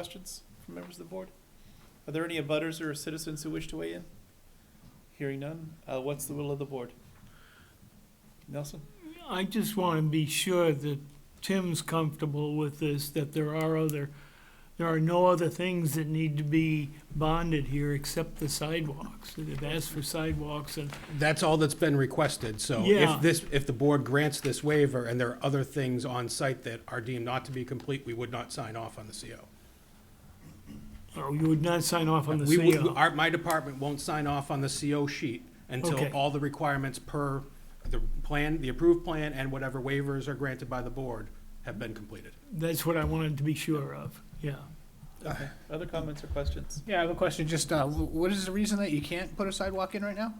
Questions from members of the board? Are there any abutters or citizens who wish to weigh in? Hearing none, uh, what's the will of the board? Nelson? I just want to be sure that Tim's comfortable with this, that there are other, there are no other things that need to be bonded here except the sidewalks. They've asked for sidewalks and, That's all that's been requested, so Yeah. if this, if the board grants this waiver and there are other things on site that are deemed not to be complete, we would not sign off on the CO. oh, you would not sign off on the We would- CO. our- my department won't sign off on the CO sheet until Okay. all the requirements per the plan, the approved plan, and whatever waivers are granted by the board have been completed. That's what I wanted to be sure of, yeah. Okay. Other comments or questions? Yeah, I have a question. Just, uh, wh- what is the reason that you can't put a sidewalk in right now?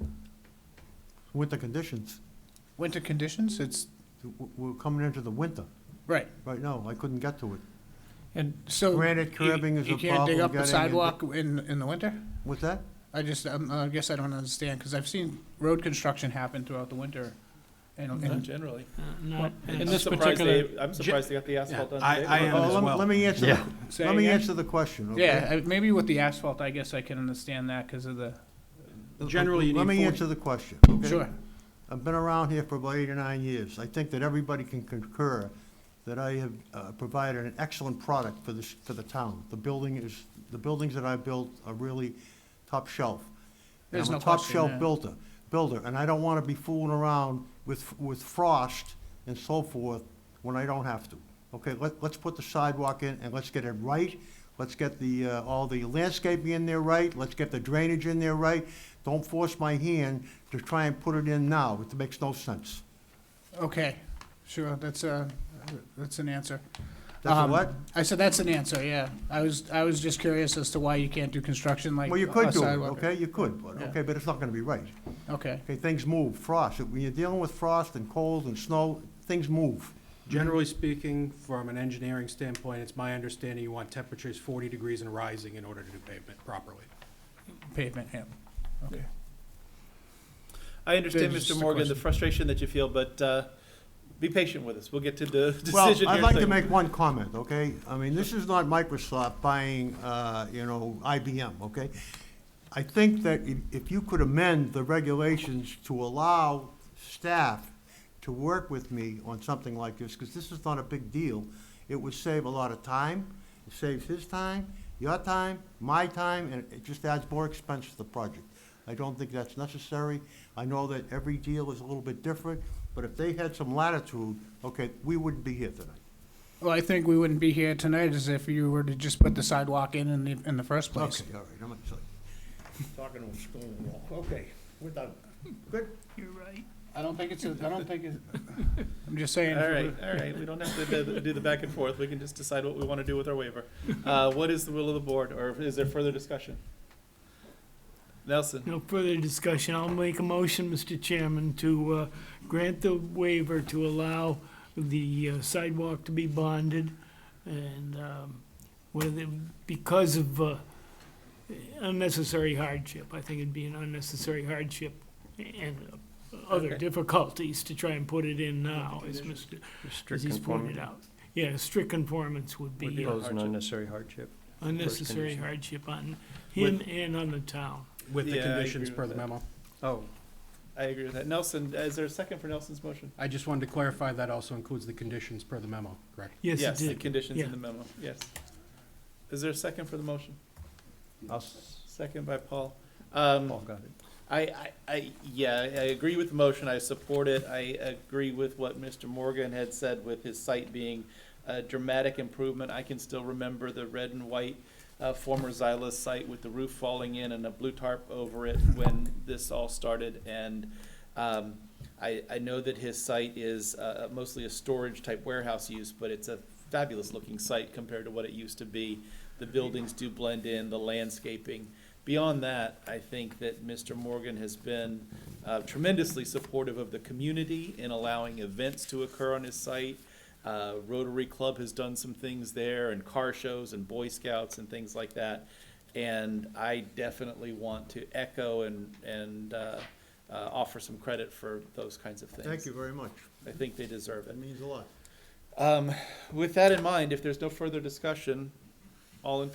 Winter conditions. Winter conditions, it's, W- We're coming into the winter. right, Right now, I couldn't get to it. and so. Granite Oh, you- curbing is a You can't dig problem up the getting in sidewalk in, in the winter? What's that? I just, um, I guess I don't understand, because I've seen road construction happen throughout the winter. And, Not and, generally. Uh, Not, I'm uh, this surprised particular- they- I'm surprised they got the asphalt Yeah, done I- today. uh, I am Oh, as lem- well. Let me answer, the- Say let me again? answer the question, okay? Yeah, I- maybe with the asphalt, I guess I can understand that because of the, Generally, you Let need me 40. answer the question, okay? sure. I've been around here for about eight or nine years. I think that everybody can concur that I have uh, provided an excellent product for this, for the town. The building is, the buildings that I built are really top shelf. And There's I'm a no top question, shelf yeah. builder, builder, and I don't want to be fooling around with, with frost and so forth when I don't have to. Okay, let, let's put the sidewalk in and let's get it right. Let's get the, uh, all the landscaping in there right. Let's get the drainage in there right. Don't force my hand to try and put it in now. It makes no sense. Okay, sure, that's a, that's an answer. That's a Um, what? I said, that's an answer, yeah. I was, I was just curious as to why you can't do construction like Well, you a could do it, sidewalk. okay? You could, but, Yeah. okay, but it's not gonna be right. Okay, Okay, things move, frost, when you're dealing with frost and cold and snow, things move. Generally speaking, from an engineering standpoint, it's my understanding you want temperatures forty degrees and rising in order to do pavement properly. pavement, yeah, okay. I understand, Just Mr. a Morgan, the question. frustration that you feel, but, uh, be patient with us. We'll get to the decision Well, here. I'd like to soon. make one comment, okay? I mean, this is not Microsoft buying, uh, you know, IBM, okay? I think that if- if you could amend the regulations to allow staff to work with me on something like this, because this is not a big deal, it would save a lot of time, it saves his time, your time, my time, and it just adds more expense to the project. I don't think that's necessary. I know that every deal is a little bit different, but if they had some latitude, okay, we wouldn't be here tonight. Well, I think we wouldn't be here tonight as if you were to just put the sidewalk in in the, in the first place. Okay, all right, I'm gonna Talking to a stone wall, okay, we're done. Good? You're right. I don't think it's, a- I don't think it's, I'm just saying. All right, all right, we don't have to do the- do the back and forth, we can just decide what we want to do with our waiver. Uh, What is the will of the board, or is there further discussion? Nelson, No further discussion. I'll make a motion, Mr. Chairman, to uh, grant the waiver to allow the uh, sidewalk to be bonded. And um, whether, because of uh, unnecessary hardship, I think it'd be an unnecessary hardship and other Okay. difficulties to try and put it in now, as Mr., as Strict he's pointed conformity. out. Yeah, strict conformance would Would be be uh, Impose an unnecessary hardship. unnecessary condition. hardship on him and on the town. With the Yeah, I conditions agree per with the that. memo. Oh, I agree with that. Nelson, is there a second for Nelson's motion? I just wanted to clarify that also includes the conditions per the memo, correct? Yes, it the did. conditions Yeah. in the memo, yes. Is there a second for the motion? Second by Paul. Um, Paul got it. I, I, I, yeah, I agree with the motion, I support it, I agree with what Mr. Morgan had said with his site being a dramatic improvement, I can still remember the red and white, uh, former Xylus site with the roof falling in and a blue tarp over it when this all started, and, um, I, I know that his site is, uh, mostly a storage-type warehouse use, but it's a fabulous-looking site compared to what it used to be. The buildings do blend in, the landscaping, Beyond that, I think that Mr. Morgan has been uh, tremendously supportive of the community in allowing events to occur on his site. Uh, Rotary Club has done some things there, and car shows, and Boy Scouts, and things like that. And I definitely want to echo and, and uh, uh, offer some credit for those kinds of things. Thank you very much. I think they deserve it. That means a lot. Um, with that in mind, if there's no further discussion, All in